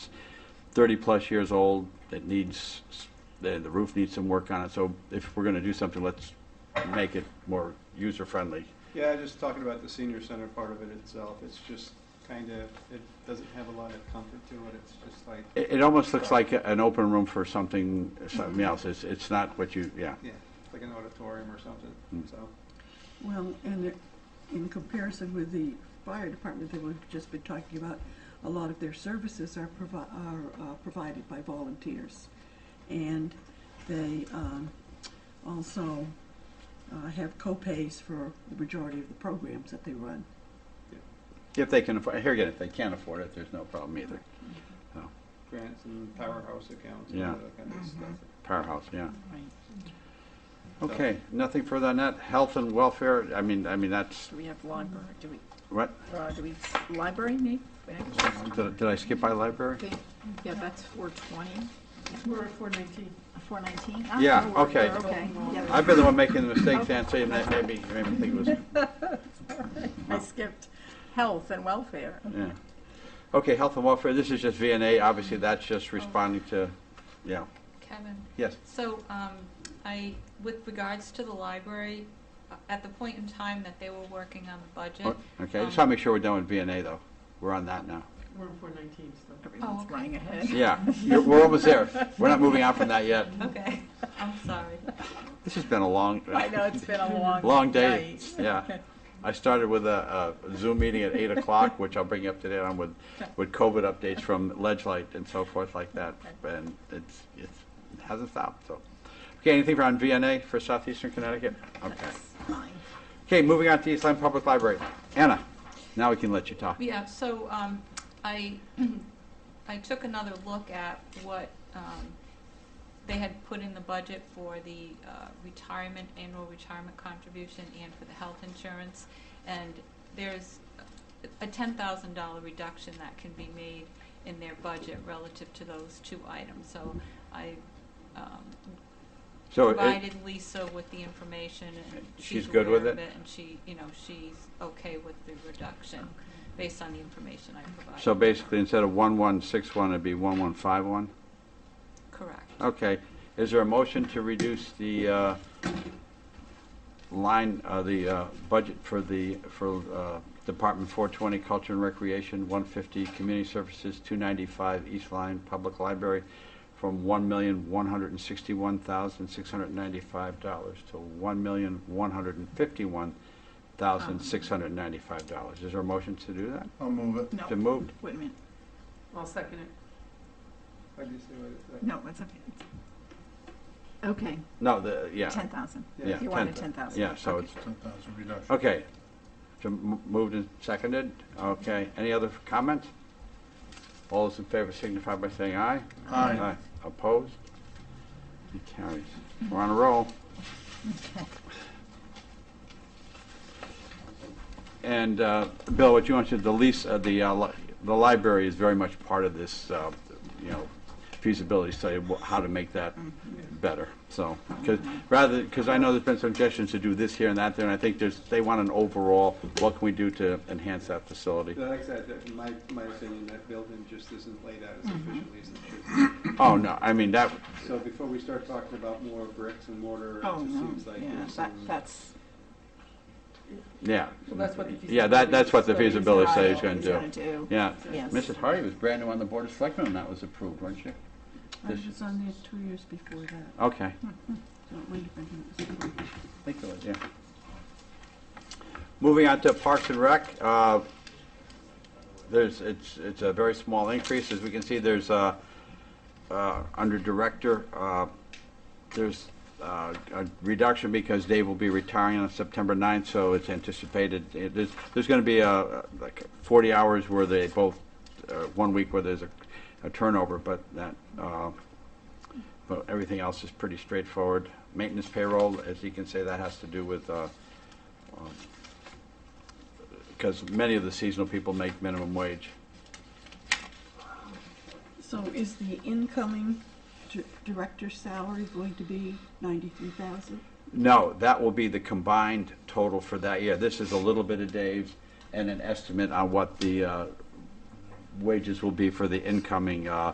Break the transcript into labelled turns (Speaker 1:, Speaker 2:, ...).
Speaker 1: 30-plus years old, it needs, the the roof needs some work on it, so if we're going to do something, let's make it more user-friendly.
Speaker 2: Yeah, just talking about the senior center part of it itself, it's just kind of, it doesn't have a lot of comfort to it, it's just like,
Speaker 1: It it almost looks like a- an open room for something, something else. It's it's not what you, yeah.
Speaker 2: yeah, it's like an auditorium or something,
Speaker 1: Mm.
Speaker 2: so.
Speaker 3: Well, and it- in comparison with the fire department that we've just been talking about, a lot of their services are provi- are uh, provided by volunteers. And they um, also uh, have co-pays for the majority of the programs that they run.
Speaker 1: If they can, afford here again, if they can't afford it, there's no problem either.
Speaker 2: Grants and powerhouse accounts and
Speaker 1: Yeah.
Speaker 2: all that kind of stuff.
Speaker 1: Powerhouse, yeah.
Speaker 4: Right.
Speaker 1: Okay, nothing further on that. Health and welfare, I mean, I mean, that's,
Speaker 4: Do we have library, do we,
Speaker 1: what,
Speaker 4: uh, do we, library maybe?
Speaker 1: did did I skip by library?
Speaker 4: Okay, yeah, that's four twenty,
Speaker 5: We're at four nineteen.
Speaker 4: four nineteen? Ah,
Speaker 1: Yeah, okay.
Speaker 4: Okay, yeah,
Speaker 1: I've been the one making the mistakes, Nancy, and that made me, made me think it was
Speaker 4: I skipped health and welfare.
Speaker 5: Oh,
Speaker 1: Yeah. Okay, health and welfare, this is just VNA, obviously that's just responding to, yeah,
Speaker 6: Kevin,
Speaker 1: yes.
Speaker 6: so um, I, with regards to the library, uh, at the point in time that they were working on the budget.
Speaker 1: Oh, Okay, I just want
Speaker 6: um,
Speaker 1: to make sure we're done with VNA though. We're on that now.
Speaker 5: We're at four nineteen still.
Speaker 4: Everyone's
Speaker 6: okay.
Speaker 4: running ahead.
Speaker 1: Yeah, you're- we're almost there. We're not moving on from that yet.
Speaker 6: Okay, I'm sorry.
Speaker 1: This has been a long,
Speaker 4: I know, it's been a long
Speaker 1: long day.
Speaker 4: night.
Speaker 1: Yeah. I started with a a Zoom meeting at 8 o'clock, which I'll bring you up to date on with, with COVID updates from Ledge Light and so forth like that. And it's, it's, it hasn't stopped, so. Okay, anything on VNA for Southeastern Connecticut? Okay.
Speaker 4: That's fine.
Speaker 1: Okay, moving on to East Lyme Public Library. Anna, now we can let you talk.
Speaker 6: Yeah, so um, I, I took another look at what um, they had put in the budget for the uh, retirement, annual retirement contribution and for the health insurance. And there's a ten thousand dollar reduction that can be made in their budget relative to those two items. So I um,
Speaker 1: So Oh, it-
Speaker 6: provided Lisa with the information and
Speaker 1: She's
Speaker 6: she's
Speaker 1: good
Speaker 6: aware
Speaker 1: with
Speaker 6: of it.
Speaker 1: it?
Speaker 6: And she, you know, she's okay with the reduction based on the information I provided.
Speaker 1: so basically, instead of 1161, it'd be 1151?
Speaker 6: Correct.
Speaker 1: Okay. Is there a motion to reduce the uh, line, uh, the uh, budget for the, for uh, Department 420 Culture and Recreation, 150 Community Services, 295 East Line Public Library, from $1,161,695 to $1,151,695? Is there a motion to do that?
Speaker 7: I'll move it.
Speaker 1: To
Speaker 4: No,
Speaker 1: move?
Speaker 4: wait a minute,
Speaker 5: I'll second it.
Speaker 2: How do you say what it's like?
Speaker 4: no, it's okay. Okay,
Speaker 1: No, the, yeah,
Speaker 4: ten thousand,
Speaker 1: yeah.
Speaker 4: you
Speaker 1: 10,000.
Speaker 4: wanted ten thousand.
Speaker 1: Yeah, so it's,
Speaker 7: 10,000 reduction.
Speaker 1: Okay. So m- Moved and seconded. Okay. Any other comments? All those in favor signify by saying aye.
Speaker 7: Aye.
Speaker 1: Opposed? It carries. We're on a roll. And uh, Bill, what you mentioned, the lease, uh, the, uh, li- the library is very much part of this, uh, you know, feasibility study, wh- how to make that
Speaker 5: Mm-hmm.
Speaker 1: better, so. Because, rather, because I know there's been suggestions to do this here and that there, and I think there's, they want an overall, what can we do to enhance that facility?
Speaker 2: Like I said, that- in my, my opinion, that building just isn't laid out as
Speaker 4: Mm-hmm.
Speaker 2: efficiently as it should
Speaker 1: Oh, no, I mean, that,
Speaker 2: be. So before we start talking about more bricks and mortar, it
Speaker 4: Oh,
Speaker 2: just
Speaker 4: no,
Speaker 2: seems like
Speaker 4: yeah,
Speaker 2: there's
Speaker 4: that,
Speaker 2: some.
Speaker 4: that's.
Speaker 1: yeah.
Speaker 5: Well, that's what the
Speaker 1: Yeah, that, that's what the
Speaker 5: feasibility
Speaker 1: feasibility
Speaker 5: study
Speaker 1: study is
Speaker 5: is
Speaker 1: going to do.
Speaker 4: do.
Speaker 1: Yeah.
Speaker 4: Yes.
Speaker 1: Mrs. Hardy was brand new on the Board of Selectmen when that was approved, weren't you?
Speaker 3: I
Speaker 1: This-
Speaker 3: was on there two years before that,
Speaker 1: Okay.
Speaker 3: so it might have been when it was approved.
Speaker 1: Thank you, yeah. Moving on to Parks and Rec, uh, there's, it's, it's a very small increase. As we can see, there's, uh, uh, under Director, uh, there's uh, a reduction because Dave will be retiring on September 9th, so it's anticipated, it is- there's going to be uh, like 40 hours where they both, uh, one week where there's a a turnover, but that, uh, but everything else is pretty straightforward. Maintenance payroll, as you can say, that has to do with, uh, because many of the seasonal people make minimum wage.
Speaker 3: So is the incoming dir- director's salary going to be ninety-three thousand?
Speaker 1: No, that will be the combined total for that year. This is a little bit of Dave's and an estimate on what the uh, wages will be for the incoming uh,